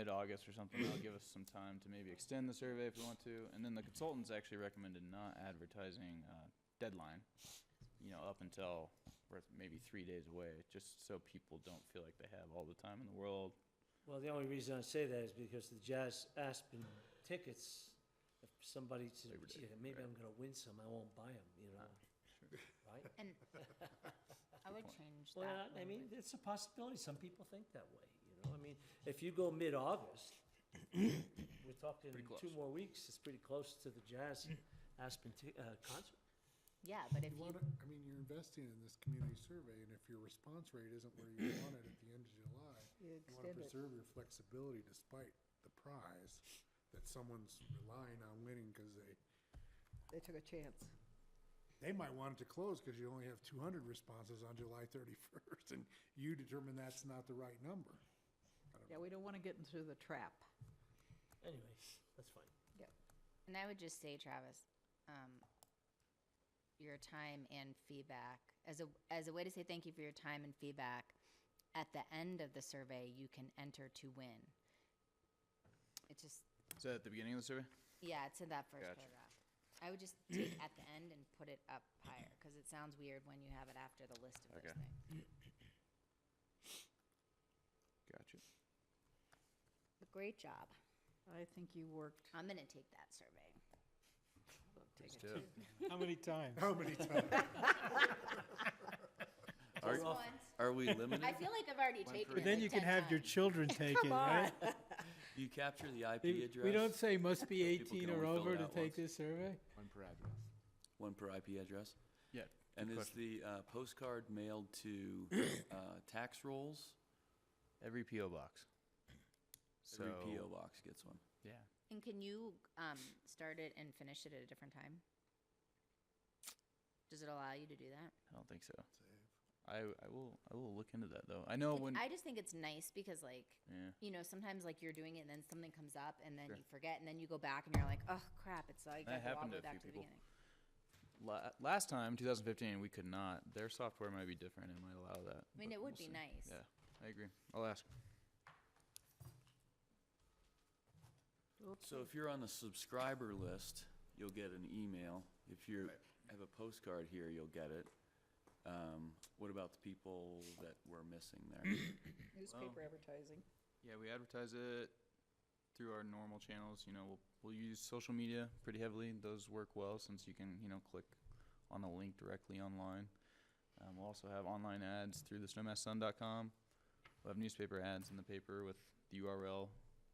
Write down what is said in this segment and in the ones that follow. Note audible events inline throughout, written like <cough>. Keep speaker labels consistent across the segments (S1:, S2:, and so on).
S1: mid-August or something, that'll give us some time to maybe extend the survey if we want to. And then the consultants actually recommended not advertising uh, deadline, you know, up until we're maybe three days away, just so people don't feel like they have all the time in the world.
S2: Well, the only reason I say that is because the Jazz Aspen tickets, if somebody said,
S1: Labor Day,
S2: "Gee, maybe
S1: right.
S2: I'm gonna win some, I won't buy them, you know,
S1: Ah,
S2: right?
S3: And I would
S1: point.
S3: change that.
S2: Well, I mean,
S3: language.
S2: it's a possibility, some people think that way, you know, I mean, if you go mid-August, <coughs> we're talking
S1: Pretty
S2: two
S1: close.
S2: more weeks, it's pretty close to the Jazz Aspen ti- uh, concert.
S3: Yeah, but if
S4: You
S3: you,
S4: wanna, I mean, you're investing in this community survey, and if your response rate isn't where you want it at the end of July, you wanna preserve your flexibility despite the prize that someone's relying on winning, cause they,
S5: They took a chance.
S4: they might want it to close, cause you only have two hundred responses on July thirty-first, and you determine that's not the right number.
S5: Yeah, we don't want to get into the trap.
S2: Anyway, that's fine.
S3: and I would just say, Travis, um, your time and feedback as a as a way to say thank you for your time and feedback. At the end of the survey, you can enter to win. It just
S1: Is that at the beginning of the survey?
S3: yeah, it's in that first
S1: Gotcha.
S3: paragraph. I would just take at the end and put it up higher because it sounds weird when you have it after the list of those
S1: Okay.
S3: things.
S1: Gotcha.
S3: But great job.
S5: I think you worked.
S3: I'm gonna take that survey.
S5: Take it.
S6: How many times?
S4: How
S3: <laughs>
S4: many times?
S1: Are-
S3: Just once.
S1: Are we limited?
S3: I feel like I've already
S1: One
S3: taken
S1: for
S6: But
S3: it.
S6: then
S3: like
S6: you can
S3: 10
S6: have your
S3: times.
S6: children take it, right?
S7: Do you capture the IP
S6: We
S7: address?
S6: we don't say must be
S7: People can
S6: 18 or
S7: only fill it
S6: over to
S7: out
S6: take
S7: once.
S6: this survey.
S8: One per address.
S7: One per IP address.
S1: Yeah.
S7: And
S1: good
S7: is
S1: question.
S7: the uh, postcard mailed to uh, tax rolls?
S1: Every PO box. So
S7: Every PO box gets one.
S1: Yeah.
S3: And can you um, start it and finish it at a different time? Does it allow you to do that?
S1: I don't think so. I I will I will look into that though. I know
S3: It's-
S1: Oh, when.
S3: I just think it's nice because, like,
S1: yeah.
S3: you know, sometimes like you're doing it and then something comes up and then
S1: Sure.
S3: you forget and then you go back and you're like, oh crap, it's like
S1: That
S3: I have to all
S1: happened to
S3: the
S1: a
S3: way back to
S1: few
S3: the
S1: people.
S3: beginning.
S1: La- last time, 2015, we could not. Their software might be different and might allow that.
S3: I mean,
S1: but
S3: it would
S1: we'll see.
S3: be nice.
S1: Yeah, I agree. I'll ask.
S7: So if you're on the subscriber list, you'll get an email. If you
S4: Right.
S7: have a postcard here, you'll get it. Um, What about the people that we're missing there?
S4: um,
S5: Newspaper advertising.
S1: Yeah, we advertise it through our normal channels. You know, we'll, we'll use social media pretty heavily. Those work well since you can, you know, click on the link directly online. Um, we'll also have online ads through the snowmasssun.com. We'll have newspaper ads in the paper with the URL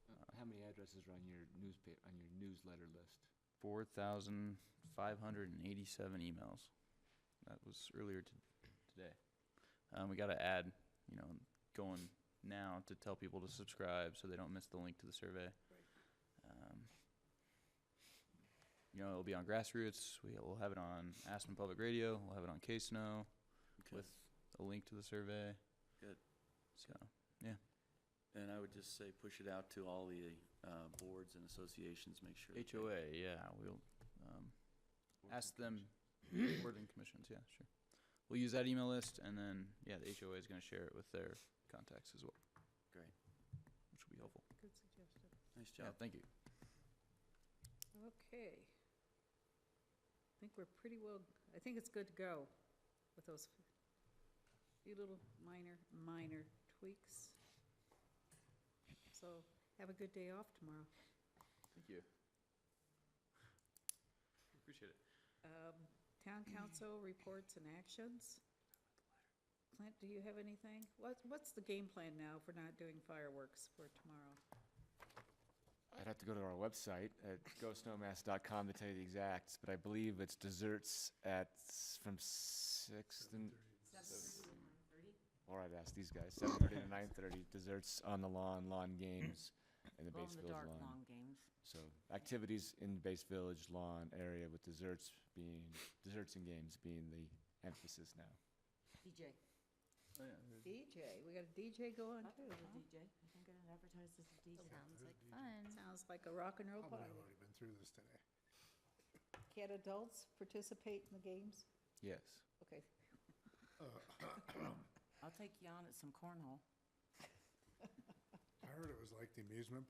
S8: Uh, How many addresses are on your newspaper, on your newsletter list?
S1: 4,587 emails. That was earlier t- today. Um, we got to add, you know, going now to tell people to subscribe so they don't miss the link to the survey. Um, you know, it'll be on grassroots. We, we'll have it on Aspen Public Radio. We'll have it on K Snow
S7: Okay.
S1: with a link to the survey.
S7: Good.
S1: So,
S7: And I would just say, push it out to all the uh, boards and associations, make sure. that they-
S1: HOA, yeah, we'll um,
S7: Boards
S1: ask
S7: and
S1: them, board and commissions, yeah, sure. We'll use that email list, and then, yeah, the HOA is gonna share it with their contacts as well,
S7: Great.
S1: which will be helpful.
S5: Good suggestion.
S7: Nice
S1: Yeah,
S7: job.
S1: thank you.
S5: Okay. I think we're pretty well, I think it's good to go with those few little minor, minor tweaks. So have a good day off tomorrow.
S1: Thank you. Appreciate it.
S5: Um, Town council reports and actions. Clint, do you have anything? What, what's the game plan now for not doing fireworks for tomorrow?
S8: I'd have to go to our website at ghostnomass.com to tell you the exacts, but I believe it's desserts at, s- from six and. Or I'd ask these guys, seven thirty to nine thirty, desserts on the lawn, lawn games, and the base village lawn.
S5: games.
S8: So activities in the base village lawn area with desserts being, desserts and games being the emphasis now.
S9: DJ.
S1: Oh, yeah.
S5: DJ, we got a DJ going
S9: I
S5: too,
S9: thought it was
S5: huh?
S9: a DJ. I think I advertised as a DJ.
S3: Sounds like fun.
S5: Sounds like a rock and roll
S4: I've
S5: party.
S4: already been through this today.
S5: Can adults participate in the games?
S8: Yes.
S5: Okay.
S9: I'll take Jan at some cornhole.
S4: I heard it was like the amusement